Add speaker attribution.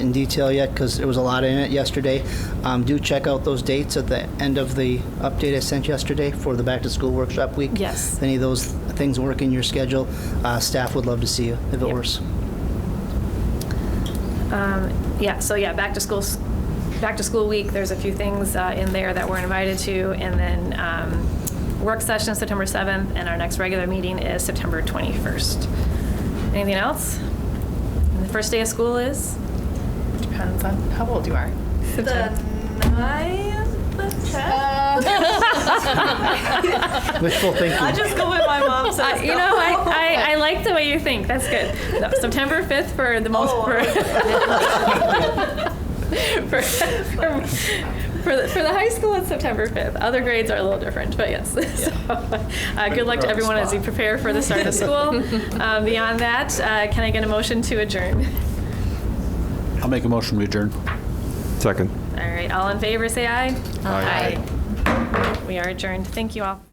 Speaker 1: in detail yet because there was a lot in it yesterday. Um, do check out those dates at the end of the update I sent yesterday for the back to school workshop week.
Speaker 2: Yes.
Speaker 1: If any of those things work in your schedule, uh, staff would love to see you if it
Speaker 2: Yep.
Speaker 1: works.
Speaker 2: Um, Yeah, so yeah, back to school, back to school week, there's a few things uh, in there that we're invited to, and then um, work session is September 7th, and our next regular meeting is September 21st. Anything else? And the first day of school is?
Speaker 3: Depends on how old you are.
Speaker 4: The ninth?
Speaker 2: Uh,
Speaker 1: Wishful
Speaker 4: I
Speaker 1: thinking.
Speaker 4: just go with my mom
Speaker 2: Uh,
Speaker 4: says.
Speaker 2: You know, I, I, I like the way you think, that's good. No, September 5th for the most,
Speaker 4: Oh.
Speaker 2: for, for, for- for the, for the high school, it's September 5th. Other grades are a little different, but yes. So, uh, Good luck to everyone as you prepare for the start of school. Uh, Beyond that, uh, can I get a motion to adjourn?
Speaker 5: I'll make a motion to adjourn.
Speaker 6: Second.
Speaker 2: All right, all in favor, say aye.
Speaker 6: Aye.
Speaker 2: We are adjourned, thank you all.